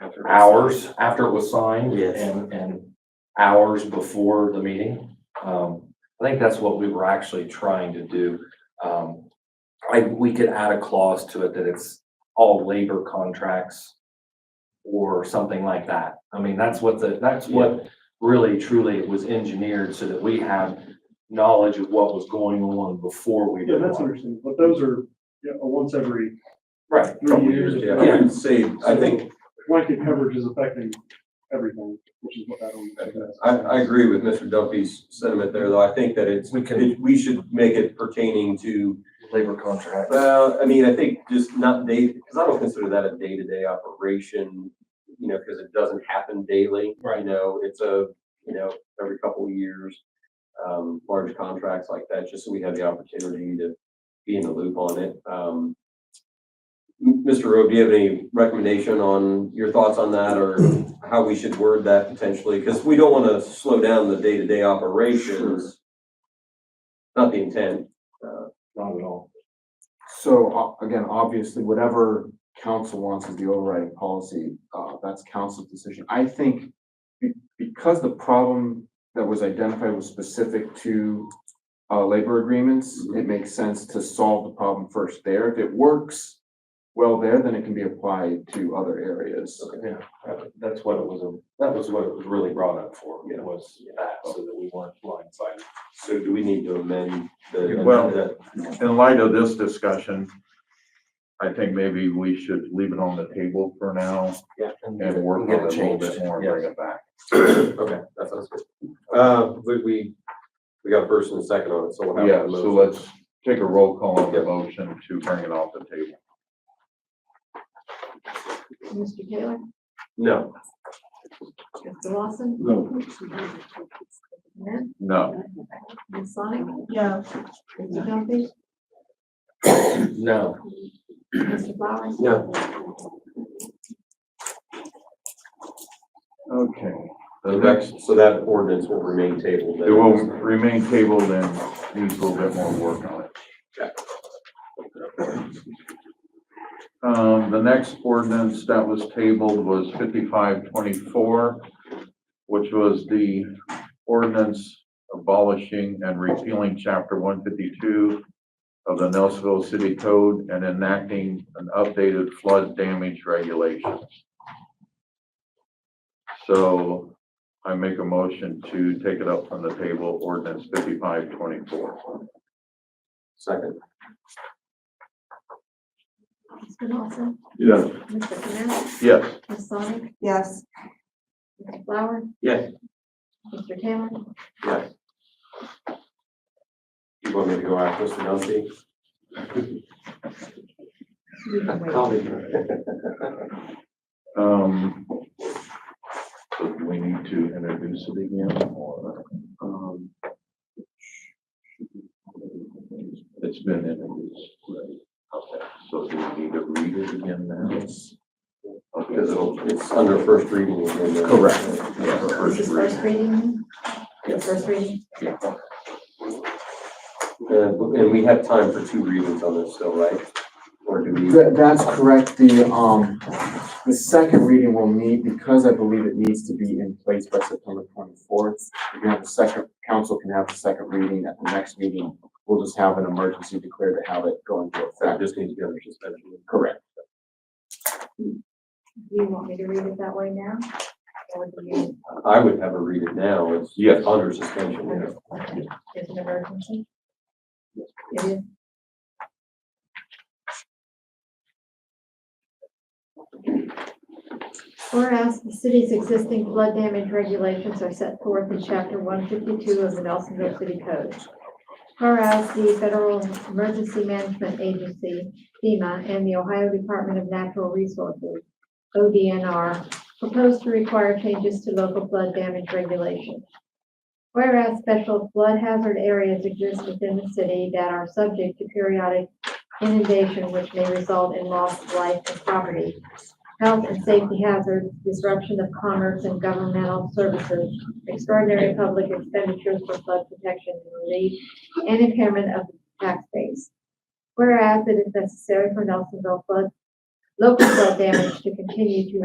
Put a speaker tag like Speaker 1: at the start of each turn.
Speaker 1: After-
Speaker 2: hours after it was signed.
Speaker 1: Yes.
Speaker 2: And, and hours before the meeting. Um, I think that's what we were actually trying to do. Um, I, we could add a clause to it that it's all labor contracts or something like that. I mean, that's what the, that's what really truly it was engineered so that we had knowledge of what was going on before we
Speaker 3: Yeah,
Speaker 2: did
Speaker 3: that's
Speaker 2: one.
Speaker 3: understandable, but those are, yeah, a once every
Speaker 2: Right.
Speaker 3: three years.
Speaker 2: yeah.
Speaker 1: I would say, I think,
Speaker 3: Blanket coverage is affecting everything, which is what that only.
Speaker 1: I, I agree with Mr. Duffy's sentiment there, though. I think that it's,
Speaker 2: We can,
Speaker 1: it- we should make it pertaining to,
Speaker 2: labor contracts.
Speaker 1: well, I mean, I think just not day, because I don't consider that a day-to-day operation, you know, because it doesn't happen daily. You
Speaker 2: Right.
Speaker 1: know, it's a, you know, every couple of years, um, large contracts like that, just so we have the opportunity to be in the loop on it. Um, M- Mr. Rowe, do you have any recommendation on your thoughts on that or how we should word that potentially? Because we don't want to slow down the day-to-day operations. Not the intent. Uh,
Speaker 2: Not at all.
Speaker 4: So uh, again, obviously, whatever council wants as the overriding policy, uh, that's council's decision. I think be- because the problem that was identified was specific to uh, labor agreements,
Speaker 2: Mm-hmm.
Speaker 4: it makes sense to solve the problem first there. If it works well there, then it can be applied to other areas.
Speaker 2: Yeah, that- that's what it was, that was what it was really brought up for,
Speaker 1: Yeah.
Speaker 2: was that, so that we weren't blindsided.
Speaker 1: So do we need to amend the?
Speaker 5: Well-
Speaker 1: amend that?
Speaker 5: in light of this discussion, I think maybe we should leave it on the table for now and work on it a little bit more and bring it back.
Speaker 1: Okay, that sounds good. Uh, we, we, we got a first and a second on it, so we'll have.
Speaker 5: Yeah,
Speaker 1: a
Speaker 5: so
Speaker 1: motion.
Speaker 5: let's take a roll call on the motion to bring it off the table.
Speaker 6: Mr. Taylor?
Speaker 1: No,
Speaker 6: Mr. Lawson?
Speaker 5: No.
Speaker 6: Mayor?
Speaker 5: No,
Speaker 6: Ms. Sonic? No. Mr. Duffy?
Speaker 2: No,
Speaker 6: Mr. Flowers?
Speaker 1: No.
Speaker 5: okay. The
Speaker 1: the
Speaker 5: next,
Speaker 1: next, so that ordinance will remain tabled. then.
Speaker 5: it will remain tabled and needs a little bit more work on it. Um, the next ordinance that was tabled was fifty-five twenty-four, which was the ordinance abolishing and repealing chapter one fifty-two of the Nelsonville City Code and enacting an updated flood damage regulations. So I make a motion to take it up from the table, ordinance fifty-five twenty-four.
Speaker 1: Second,
Speaker 6: Mr. Lawson?
Speaker 5: Yes.
Speaker 6: Mr. Canal?
Speaker 5: Yes.
Speaker 6: Ms. Sonic?
Speaker 7: Yes,
Speaker 6: Mr. Flowers?
Speaker 1: Yes.
Speaker 6: Mr. Taylor?
Speaker 1: yes. You want me to go after Mr. Duffy?
Speaker 6: You can wait.
Speaker 1: I'll be-
Speaker 5: Um, so do we need to introduce it again or? um, It's been introduced. Right. Okay, so do we need to read it again now?
Speaker 1: Because
Speaker 5: Okay.
Speaker 1: it'll, it's under first reading. and then-
Speaker 5: Correct. Yeah, for
Speaker 6: This
Speaker 5: first
Speaker 6: is first
Speaker 5: reading.
Speaker 6: reading? Yes. First reading?
Speaker 1: Uh, and we have time for two readings on this still, right? Or do we?
Speaker 4: That, that's correct. The, um, the second reading will need, because I believe it needs to be in place by September twenty-fourth. You can have the second, council can have the second reading at the next meeting. We'll just have an emergency declared to have it go into
Speaker 1: I
Speaker 4: effect.
Speaker 1: just need to go under suspension.
Speaker 4: Correct.
Speaker 6: You want me to read it that way now? Or do you,
Speaker 1: I would have a read it now. It's
Speaker 5: Yes.
Speaker 1: under suspension, yeah.
Speaker 6: is it emergency? It is? Whereas the city's existing flood damage regulations are set forth in chapter one fifty-two of the Nelsonville City Code. Whereas the Federal Emergency Management Agency, FEMA, and the Ohio Department of Natural Resources, ODNR, propose to require changes to local flood damage regulations. Whereas special flood hazard areas exist within the city that are subject to periodic inundation which may result in loss of life and property, health and safety hazards, disruption of commerce and governmental services, extraordinary public expenditures for flood protection and relief, and impairment of the tax base. Whereas it is necessary for Nelsonville flood, local flood damage to continue to